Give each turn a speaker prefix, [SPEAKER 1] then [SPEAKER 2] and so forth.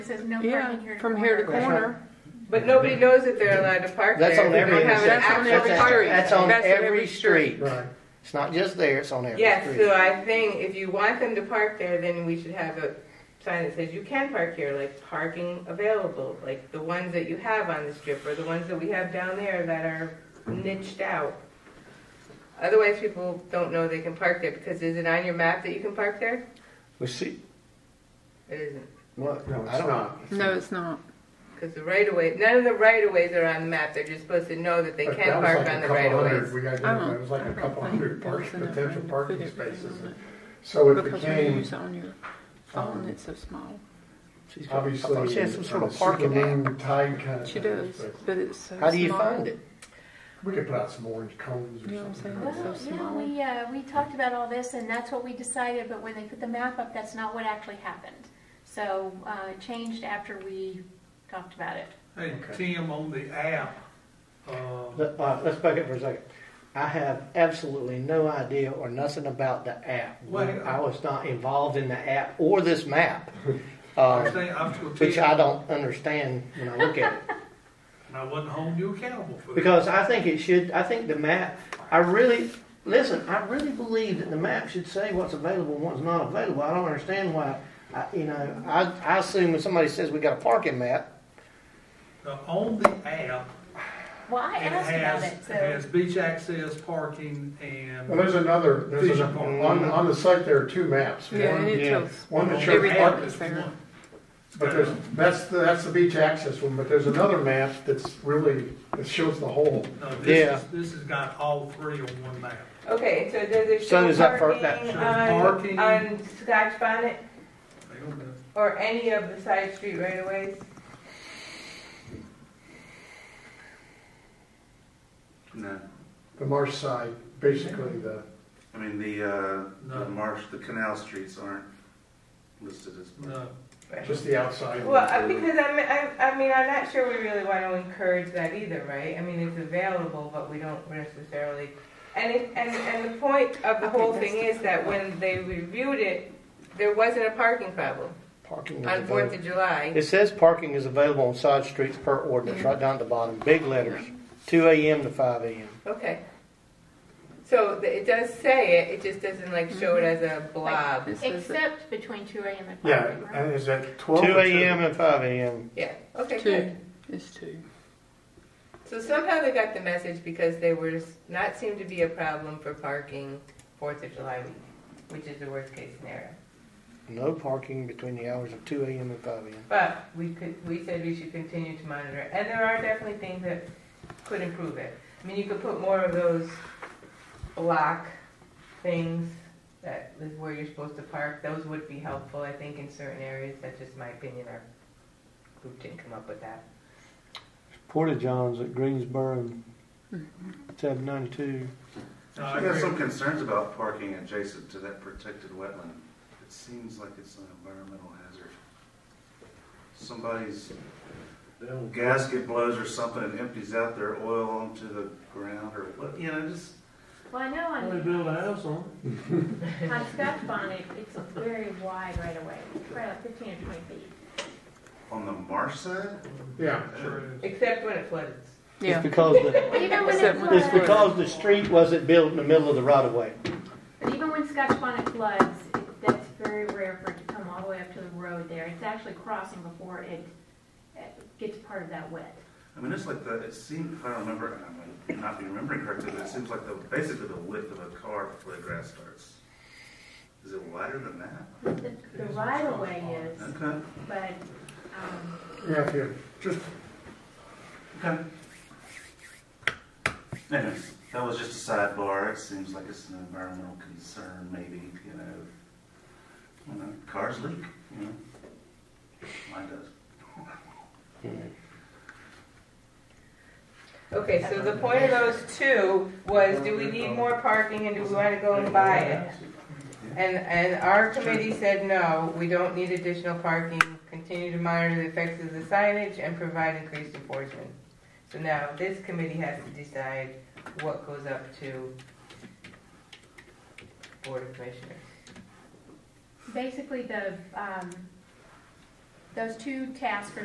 [SPEAKER 1] It says no
[SPEAKER 2] Yeah,
[SPEAKER 1] parking here.
[SPEAKER 2] from here to
[SPEAKER 3] That's
[SPEAKER 2] corner.
[SPEAKER 4] But nobody knows that they're allowed to park there.
[SPEAKER 3] That's on every
[SPEAKER 4] They don't have an
[SPEAKER 2] that's on every street.
[SPEAKER 4] access road.
[SPEAKER 3] That's on
[SPEAKER 2] That's on
[SPEAKER 3] every
[SPEAKER 2] every
[SPEAKER 3] street.
[SPEAKER 5] Right.
[SPEAKER 3] It's not just there, it's on every
[SPEAKER 4] Yes, uh, so
[SPEAKER 3] street.
[SPEAKER 4] I think if you want them to park there, then we should have a sign that says you can park here, like parking available, like the ones that you have on the strip or the ones that we have down there that are niched out. Otherwise, people don't know they can park there because is it on your map that you can park there?
[SPEAKER 3] We see,
[SPEAKER 4] It isn't,
[SPEAKER 3] well,
[SPEAKER 5] No,
[SPEAKER 3] I
[SPEAKER 5] it's
[SPEAKER 3] don't.
[SPEAKER 5] not.
[SPEAKER 2] No, it's not.
[SPEAKER 4] because the right of way, none of the right of ways are on the map. They're just supposed to know that they
[SPEAKER 5] But
[SPEAKER 4] can
[SPEAKER 5] that was
[SPEAKER 4] park
[SPEAKER 5] like a
[SPEAKER 4] on the
[SPEAKER 5] couple
[SPEAKER 4] right of
[SPEAKER 5] hundred-
[SPEAKER 4] ways.
[SPEAKER 5] We got,
[SPEAKER 2] I don't-
[SPEAKER 5] it was like
[SPEAKER 2] I
[SPEAKER 5] a
[SPEAKER 2] don't
[SPEAKER 5] couple
[SPEAKER 2] think
[SPEAKER 5] hundred
[SPEAKER 2] there was
[SPEAKER 5] parking,
[SPEAKER 2] enough
[SPEAKER 5] potential
[SPEAKER 2] room to
[SPEAKER 5] parking
[SPEAKER 2] put everything
[SPEAKER 5] spaces.
[SPEAKER 2] on it.
[SPEAKER 5] So it
[SPEAKER 2] Because when you
[SPEAKER 5] became,
[SPEAKER 2] use it on your phone, it's so small.
[SPEAKER 3] She's got- I
[SPEAKER 5] obviously,
[SPEAKER 3] thought she had some sort
[SPEAKER 5] a
[SPEAKER 3] of parking lot.
[SPEAKER 5] superman tide kind of
[SPEAKER 2] She
[SPEAKER 5] thing.
[SPEAKER 2] does,
[SPEAKER 5] but
[SPEAKER 2] but it's so small.
[SPEAKER 3] How do you find it?
[SPEAKER 5] We could put out some orange cones
[SPEAKER 2] You know what
[SPEAKER 5] or
[SPEAKER 2] I'm
[SPEAKER 5] something.
[SPEAKER 2] saying?
[SPEAKER 1] Well,
[SPEAKER 2] So
[SPEAKER 1] yeah,
[SPEAKER 2] small.
[SPEAKER 1] we, uh, we talked about all this and that's what we decided, but when they put the map up, that's not what actually happened. So, uh, it changed after we talked about it.
[SPEAKER 6] Hey,
[SPEAKER 3] Okay.
[SPEAKER 6] Tim, on the app, uh,
[SPEAKER 3] Let- uh, Let's back up for a second. I have absolutely no idea or nothing about the app.
[SPEAKER 6] Well-
[SPEAKER 3] I was not involved in the app or this map,
[SPEAKER 6] I
[SPEAKER 3] uh,
[SPEAKER 6] think I'm still
[SPEAKER 3] which I
[SPEAKER 6] Tim,
[SPEAKER 3] don't understand when I look at it.
[SPEAKER 6] and I wasn't holding you accountable for that.
[SPEAKER 3] Because I think it should, I think the map, I really, listen, I really believe that the map should say what's available and what's not available. I don't understand why, I, you know, I, I assume when somebody says we got a parking map,
[SPEAKER 6] Now, Uh, On the app,
[SPEAKER 1] Well, I
[SPEAKER 6] it
[SPEAKER 1] asked about
[SPEAKER 6] has,
[SPEAKER 1] it,
[SPEAKER 6] it
[SPEAKER 1] so.
[SPEAKER 6] has beach access, parking,
[SPEAKER 5] Well,
[SPEAKER 6] and
[SPEAKER 5] there's another, there's
[SPEAKER 6] Vision
[SPEAKER 5] an-
[SPEAKER 6] park.
[SPEAKER 5] on, on the site, there are two maps.
[SPEAKER 2] Yeah,
[SPEAKER 5] One-
[SPEAKER 2] and it
[SPEAKER 3] yeah.
[SPEAKER 2] tells
[SPEAKER 5] One that shows
[SPEAKER 2] everything
[SPEAKER 5] parking.
[SPEAKER 2] that's there.
[SPEAKER 6] Uh,
[SPEAKER 5] But there's, that's, the that's the beach access one, but there's another map that's really, that shows the whole.
[SPEAKER 6] no,
[SPEAKER 3] Yeah.
[SPEAKER 6] this is, this has got all three on one map.
[SPEAKER 4] Okay, so does it
[SPEAKER 3] So
[SPEAKER 4] show
[SPEAKER 3] is that for-
[SPEAKER 4] parking
[SPEAKER 6] that-
[SPEAKER 4] on,
[SPEAKER 6] Parking.
[SPEAKER 4] on Scotch Bonnet
[SPEAKER 6] Hang on a minute.
[SPEAKER 4] or any of the side street right of ways?
[SPEAKER 7] No,
[SPEAKER 5] the marsh side, basically the,
[SPEAKER 7] I mean, the, uh,
[SPEAKER 6] No.
[SPEAKER 7] the marsh, the canal streets aren't listed as.
[SPEAKER 6] No,
[SPEAKER 5] just the outside.
[SPEAKER 4] Well, I- because I'm, I, I mean, I'm not sure we really want to encourage that either, right? I mean, it's available, but we don't necessarily. And it, and, and the point of the whole thing is that when they reviewed it, there wasn't a parking problem
[SPEAKER 3] parking is
[SPEAKER 4] on Fourth
[SPEAKER 3] available.
[SPEAKER 4] of July.
[SPEAKER 3] It says parking is available on side streets per ordinance, right down at the bottom, big letters, two AM to five AM.
[SPEAKER 4] Okay. So th- it does say it, it just doesn't like show it as a blob.
[SPEAKER 2] This is it.
[SPEAKER 1] Except between two AM and
[SPEAKER 5] Yeah,
[SPEAKER 1] five AM.
[SPEAKER 5] and is that twelve?
[SPEAKER 3] Two AM and five AM.
[SPEAKER 4] Yeah, okay, good.
[SPEAKER 2] two. It's two.
[SPEAKER 4] So somehow they got the message because there was not seemed to be a problem for parking Fourth of July week, which is the worst case scenario.
[SPEAKER 3] No parking between the hours of two AM and five AM.
[SPEAKER 4] But we could, we said we should continue to monitor, and there are definitely things that could improve it. I mean, you could put more of those block things that is where you're supposed to park. Those would be helpful, I think, in certain areas. That's just my opinion. Our group didn't come up with that.
[SPEAKER 3] Porta Johns at Greensboro, tab ninety-two.
[SPEAKER 6] no, I
[SPEAKER 7] I have some
[SPEAKER 6] agree.
[SPEAKER 7] concerns about parking adjacent to that protected wetland. It seems like it's an environmental hazard. Somebody's gasket blows or something and empties out their oil onto the ground or what, you know, just.
[SPEAKER 8] Well, I know
[SPEAKER 6] Well, They
[SPEAKER 8] on,
[SPEAKER 6] build a house on it.
[SPEAKER 8] on Scotch Bonnet, it's very wide right away, it's probably like fifteen or twenty feet.
[SPEAKER 7] On the marsh side?
[SPEAKER 5] Yeah,
[SPEAKER 6] Sure is.
[SPEAKER 4] Except when it floods.
[SPEAKER 2] Yeah.
[SPEAKER 3] It's because the,
[SPEAKER 8] Even when it
[SPEAKER 2] Except when
[SPEAKER 3] it's
[SPEAKER 2] it's-
[SPEAKER 8] floods,
[SPEAKER 3] because the street wasn't built in the middle of the right of way.
[SPEAKER 8] but even when Scotch Bonnet floods, it- that's very rare for it to come all the way up to the road there. It's actually crossing before it uh, gets part of that wet.
[SPEAKER 7] I mean, it's like the, it seemed, if I remember, and I might not be remembering correctly, but it seems like the, basically the width of a car before the grass starts. Is it wider than that?
[SPEAKER 8] The the right of way is,
[SPEAKER 7] Okay.
[SPEAKER 8] but, um,
[SPEAKER 5] yeah, if you just
[SPEAKER 7] Okay. Anyways, that was just a sidebar. It seems like it's an environmental concern, maybe, you know. You know, cars leak, you know. Mine does.
[SPEAKER 4] Okay, so the point of those two was, do we need more parking and do we want to go and buy it? And, and our committee said, no, we don't need additional parking, continue to monitor the effects of the signage and provide increased enforcement. So now this committee has to decide what goes up to Board of Commissioners.
[SPEAKER 1] Basically, the, um,
[SPEAKER 8] those two tasks are